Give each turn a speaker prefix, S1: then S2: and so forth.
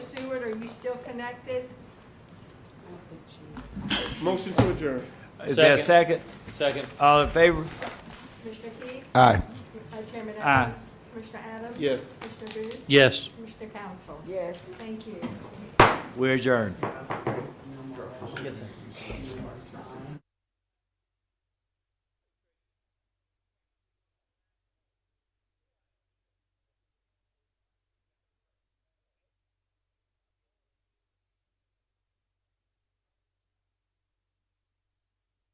S1: Are you still connected?
S2: Motion to adjourn.
S3: Is there a second?
S4: Second.
S3: All in favor?
S1: Commissioner Keith?
S5: Aye.
S1: Vice Chairman
S3: Aye.
S1: Evans? Commissioner Adams?
S2: Yes.
S1: Commissioner Booth?
S4: Yes.
S1: Commissioner Council?
S6: Yes.
S1: Thank you.
S3: We adjourn.